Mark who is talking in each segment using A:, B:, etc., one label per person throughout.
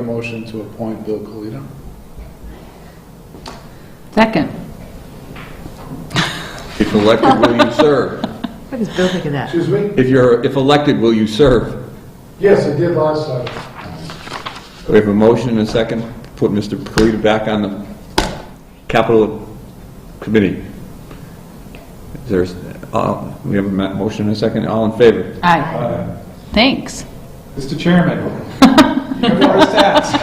A: A motion to appoint Bill Colito.
B: Second.
C: If elected, will you serve?
D: What does Bill think of that?
E: Excuse me?
C: If you're, if elected, will you serve?
E: Yes, I did last time.
C: We have a motion and a second, put Mr. Perita back on the capital committee. There's, uh, we have a ma- motion and a second, all in favor?
B: Aye. Thanks.
F: Mr. Chairman, your first ask,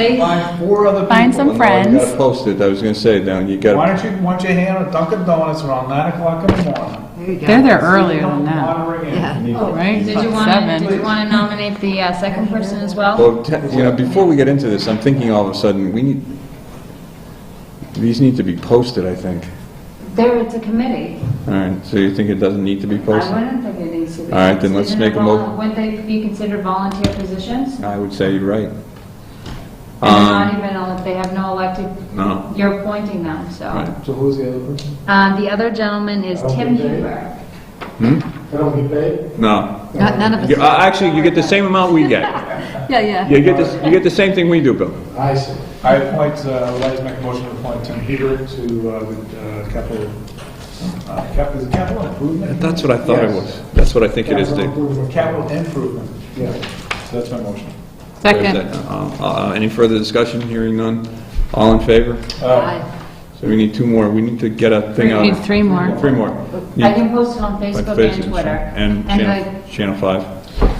G: Oh,
F: find four other people.
B: Find some
C: Well, Oh, You gotta
B: friends.
C: post it, I was gonna say, now,
F: Why
C: you gotta,
F: don't you, why don't you hand out Dunkin' Donuts around nine o'clock in the morning?
D: There you go.
B: They're there earlier than that,
F: Monterey Inn.
D: Yeah.
H: oh,
B: right?
G: Did you want to,
B: Seven.
G: did you want to nominate the uh, second person as well?
C: well, te- you know, before we get into this, I'm thinking all of a sudden, we need, these need to be posted, I think.
H: There, it's a committee.
C: All right, so you think it doesn't need to be
H: I
C: posted?
H: wouldn't think it needs to be.
C: All right, then let's
H: Isn't it
C: make a mo-
H: vol- Wouldn't they be considered volunteer positions?
C: I would say you're right.
H: And they're
C: Um,
H: not even, ele- they have no elected,
C: No.
H: you're appointing them,
C: Right.
H: so.
E: So who's the other person?
H: Uh, The other gentleman is
E: Okay.
H: Tim Huber.
E: I don't get paid?
C: No.
D: Not- None of
C: You-
D: us.
C: uh, Actually, you get the same amount we get.
B: Yeah, yeah.
C: You get this, you get the same thing we do, Bill.
E: I see.
F: I appoint, uh, would like to make a motion to appoint Tim Heber to, uh, the, uh, capital, uh, capital, is it capital improvement?
C: That's what I thought it was. That's what I think it is.
E: Capital
C: Dave.
E: improvement.
F: Capital improvement,
E: Yeah.
F: so that's my motion.
B: Second.
C: Uh, uh, Any further discussion? Hearing none? All in favor?
F: Uh,
C: So we need two more. We need to get a thing out.
B: We need three more.
C: Three more.
H: I can post it on
C: Like
H: Facebook
C: Facebook
H: and Twitter.
C: And Channel- Channel 5.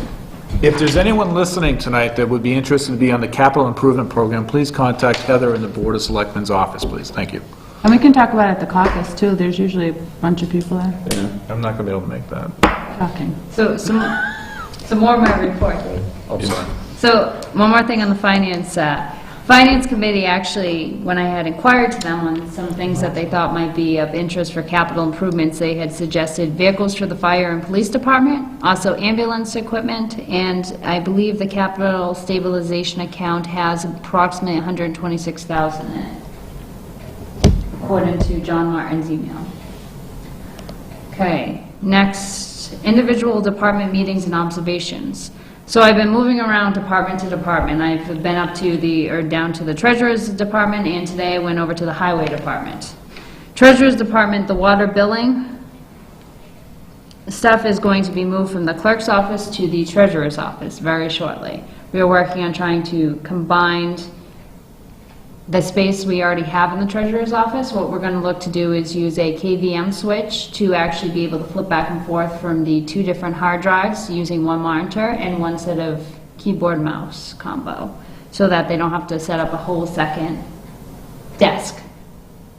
F: If there's anyone listening tonight that would be interested to be on the capital improvement program, please contact Heather in the Board of Selectmen's office, please. Thank you.
B: And we can talk about it at the caucus, too. There's usually a bunch of people there
F: I'm not going to be able to make that.
B: talking.
G: So, some, some more of my report.
F: I'm sorry.
G: So, one more thing on the finance. uh, Finance Committee, actually, when I had inquired to them on some things that they thought might be of interest for capital improvements, they had suggested vehicles for the fire and police department, also ambulance equipment, and I believe the capital stabilization account has approximately 126,000 in it, according to John Martin's email. Okay, next, individual department meetings and observations. So I've been moving around department to department. I've been up to the, or down to the treasurer's department, and today I went over to the highway department. Treasurer's department, the water billing stuff is going to be moved from the clerk's office to the treasurer's office very shortly. We are working on trying to combine the space we already have in the treasurer's office, what we're gonna look to do is use a KVM switch to actually be able to flip back and forth from the two different hard drives using one monitor and one set of keyboard mouse combo, so that they don't have to set up a whole second desk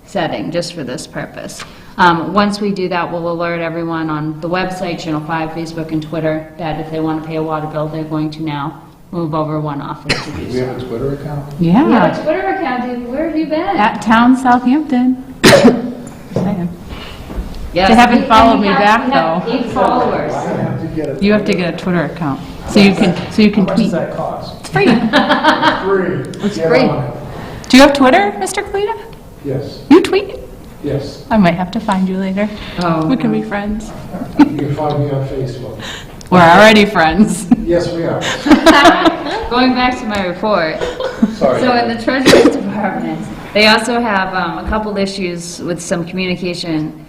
G: setting just for this purpose. Um, Once we do that, we'll alert everyone on the website, Channel 5, Facebook, and Twitter, that if they wanna pay a water bill, they're going to now move over one office to do
E: Do we
G: so.
E: have a Twitter account?
G: You have a
B: Yeah.
G: Twitter account, Dave. Where have you been?
B: At Town Southampton. Second.
G: Yes.
B: They haven't
G: We-
B: followed
G: and we
B: me
G: have-
B: back,
G: we have
B: though.
G: eight followers.
E: I have to get it.
B: You have to get a Twitter account, so you can, so you
F: How
B: can
F: much does
B: tweet.
F: that cost?
B: It's free.
E: Free.
B: Do
E: It's
B: free. you have Twitter, Mr. Kalita?
E: Yes,
B: You tweet?
E: yes.
B: I might have to find you later.
G: Oh,
B: We can be friends.
E: You can find me on Facebook.
B: We're already friends.
E: Yes, we are.
G: Going back to my report,
E: Sorry.
G: so in the Treasurer's Department, they also have um, a couple issues with some communication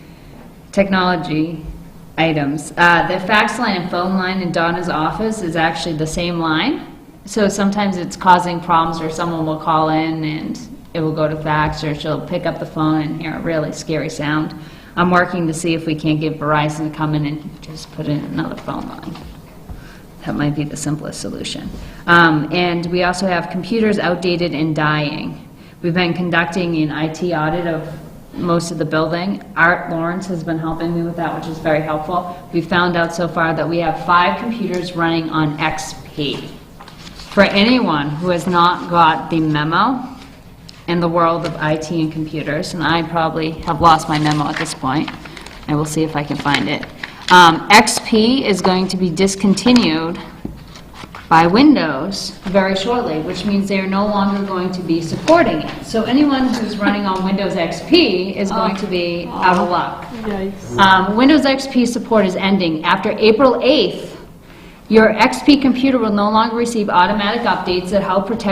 G: technology items. Uh, The fax line and phone line in Donna's office is actually the same line, so sometimes it's causing problems, or someone will call in and it will go to fax, or she'll pick up the phone and hear a really scary sound. I'm working to see if we can't get Verizon to come in and just put in another phone line. That might be the simplest solution. Um, And we also have computers outdated and dying. We've been conducting an IT audit of most of the building. Art Lawrence has been helping me with that, which is very helpful. We found out so far that we have five computers running on XP. For anyone who has not got the memo in the world of IT and computers, and I probably have lost my memo at this point, I will see if I can find it. Um, XP is going to be discontinued by Windows very shortly, which means they are no longer going to be supporting it. So anyone who's running on Windows XP is going to be out of luck. Um, Windows XP support is ending after April 8th. Your XP computer will no longer receive automatic updates that help protect